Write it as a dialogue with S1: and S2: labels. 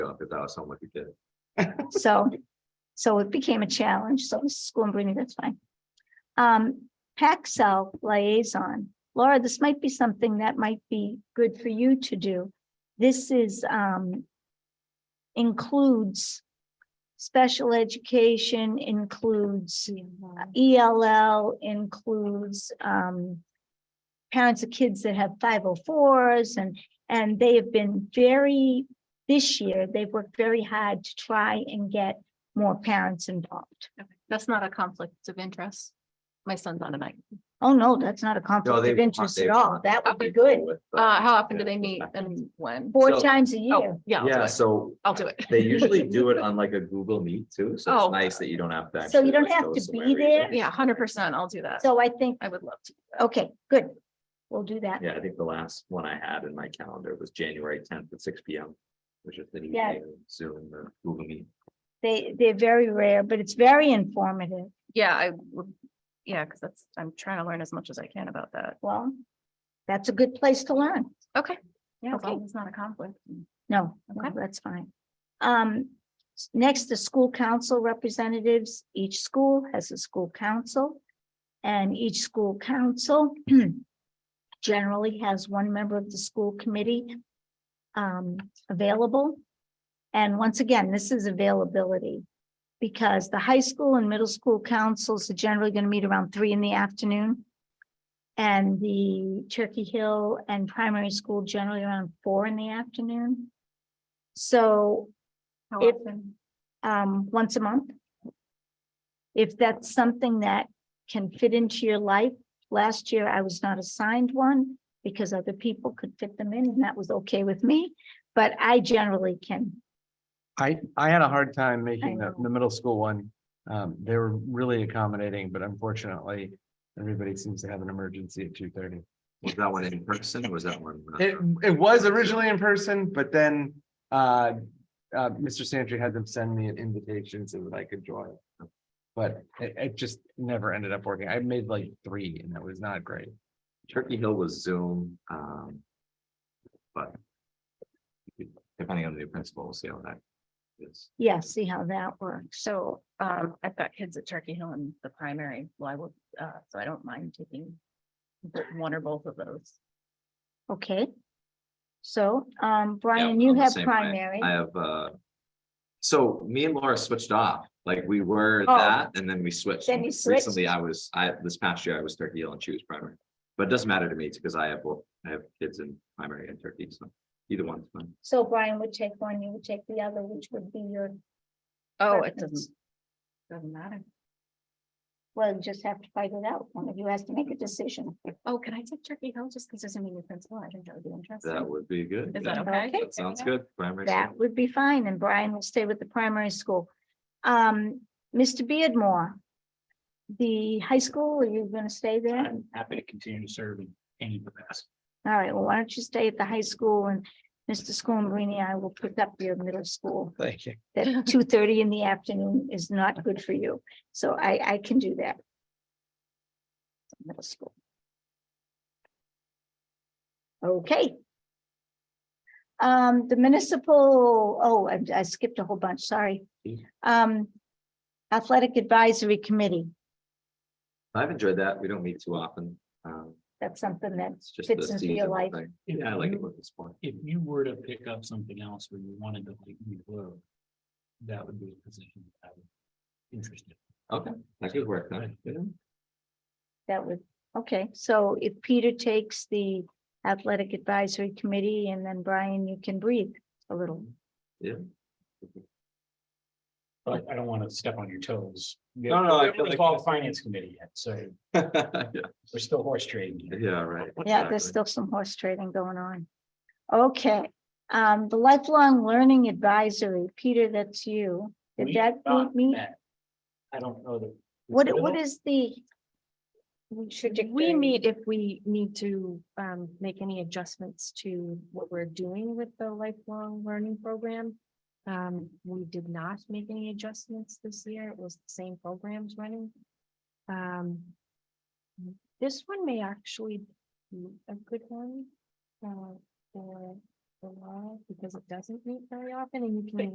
S1: up because I was sound like a kid.
S2: So, so it became a challenge. So this is school and Bruni, that's fine. Um, Paxel liaison. Laura, this might be something that might be good for you to do. This is, um, includes special education, includes ELL, includes, um, parents of kids that have five oh fours and, and they have been very this year, they've worked very hard to try and get more parents involved.
S3: Okay, That's not a conflict of interest. My son's on tonight.
S2: Oh, no, that's not a
S1: No,
S2: conflict
S1: they've
S2: of
S1: won-
S2: interest
S1: they've
S2: at all.
S1: won.
S2: That would be
S1: They've
S2: good.
S1: won with, but-
S3: Uh, how often do
S1: yeah,
S3: they
S1: it's
S3: meet
S1: fine.
S3: and when?
S2: Four
S1: So-
S2: times a
S3: Oh,
S2: year.
S3: yeah. I'll do
S1: Yeah,
S3: it.
S1: so
S3: I'll do it.
S1: they usually do it on like a Google Meet too, so
S3: Oh.
S1: it's nice that you don't have to.
S2: So
S1: actually,
S2: you don't
S1: like,
S2: have
S1: go
S2: to
S1: somewhere
S2: be
S1: every
S2: there?
S1: day.
S3: Yeah, hundred percent. I'll do that.
S2: So I think,
S3: I would love to.
S2: okay, good. We'll do that.
S1: Yeah, I think the last one I had in my calendar was January tenth at six P M. Which is the
S2: Yeah.
S1: Zoom or Google Meet.
S2: They, they're very rare, but it's very informative.
S3: Yeah, I would, yeah, because that's, I'm trying to learn as much as I can about that.
S2: Well, that's a good place to learn.
S3: Okay. Yeah, as
S2: Okay.
S3: long as it's not a conflict.
S2: No, no,
S3: Okay.
S2: that's fine. Um, s- next, the school council representatives, each school has a school council. And each school council generally has one member of the school committee um, available. And once again, this is availability. Because the high school and middle school councils are generally going to meet around three in the afternoon. And the Turkey Hill and primary school generally around four in the afternoon. So
S3: How
S2: If-
S3: often?
S2: um, once a month. If that's something that can fit into your life, last year I was not assigned one because other people could fit them in and that was okay with me, but I generally can.
S4: I, I had a hard time making the,
S2: know.
S4: the middle school one. Um, they were really accommodating, but unfortunately, everybody seems to have an emergency at two thirty.
S1: Was that one in person? or Was that one? uh,
S4: It, it was originally in person, but then, uh, uh, Mr. Santry had them send me an invitation so that I could join. But it, it just never ended up working. I made like three and that was not great.
S1: Turkey Hill was Zoom, um. But. Depending on the new principal, we'll see how that is.
S2: Yeah, see how that works.
S3: So, um, I've got kids at Turkey Hill in the primary. Well, I will, uh, so I don't mind taking bo- one or both of those.
S2: Okay. So, um, Brian,
S1: Yeah,
S2: you
S1: I'm the
S2: have
S1: same way.
S2: primary.
S1: I have, uh. So me and Laura switched off, like we were
S2: Oh.
S1: that, and then we switched.
S2: Then
S1: and
S2: you switched.
S1: Recently, I was, I, this past year, I was Turkey Hill and she was primary, but it doesn't matter to me, because I have, both. I have kids in primary and Turkey, so either one's fine.
S2: So Brian would take one, you would take the other, which would be your,
S3: Oh, it
S2: Preference.
S3: doesn't. Doesn't matter.
S2: well, you just have to fight it out. One of you has to make a decision.
S3: Oh, can I take Turkey Hill just because there's a new principal? I think that would be interesting.
S1: That would be good.
S3: Is that
S1: yeah.
S3: okay?
S2: Okay.
S1: That sounds good. Primary.
S2: That would be fine, and Brian will stay with the primary school. Um, Mr. Beardmore, the high school, are you gonna stay there?
S5: I'm happy to continue to serve in any capacity.
S2: All right, well, why don't you stay at the high school and Mr. Schoenbrini, I will pick up your middle school.
S4: Thank you.
S2: That two thirty in the afternoon is not good for you, so I, I can do that. Middle school. Okay. Um, the municipal, oh, I I skipped a whole bunch, sorry.
S1: Yeah.
S2: Um, athletic advisory committee,
S1: I've enjoyed that. We don't meet too often. Um,
S2: that's something that,
S1: it's just.
S2: Fits
S1: the
S2: into your
S1: seasonal
S2: life. Mm-hmm.
S1: thing.
S5: If
S1: Yeah, I like
S5: you-
S1: it with the sport.
S5: If you were to pick up something else where you wanted to like move over, that would be a position that I would be interested.
S1: Okay, that could work. huh? Yeah.
S2: that would, okay, so if Peter takes the athletic advisory committee and then Brian, you can breathe a little.
S5: But I don't want to step on your toes.
S1: No, no, I feel
S5: We've
S1: like-
S5: all finance committee yet, so
S1: Yeah,
S5: we're still horse trading. here.
S1: yeah, right.
S2: Yeah, there's
S1: exactly.
S2: still some horse trading going on. Okay, um, the lifelong learning advisory, Peter, that's you. Did
S5: We've
S2: that
S5: not
S2: meet?
S5: met. I don't know that.
S2: What, what is the? trajectory?
S6: We meet if we need to um make any adjustments to what we're doing with the lifelong learning program. Um, we did not make any adjustments this year. It was the same programs running. Um. This one may actually be a good one. Uh, for
S3: the law because it doesn't meet very often and you can.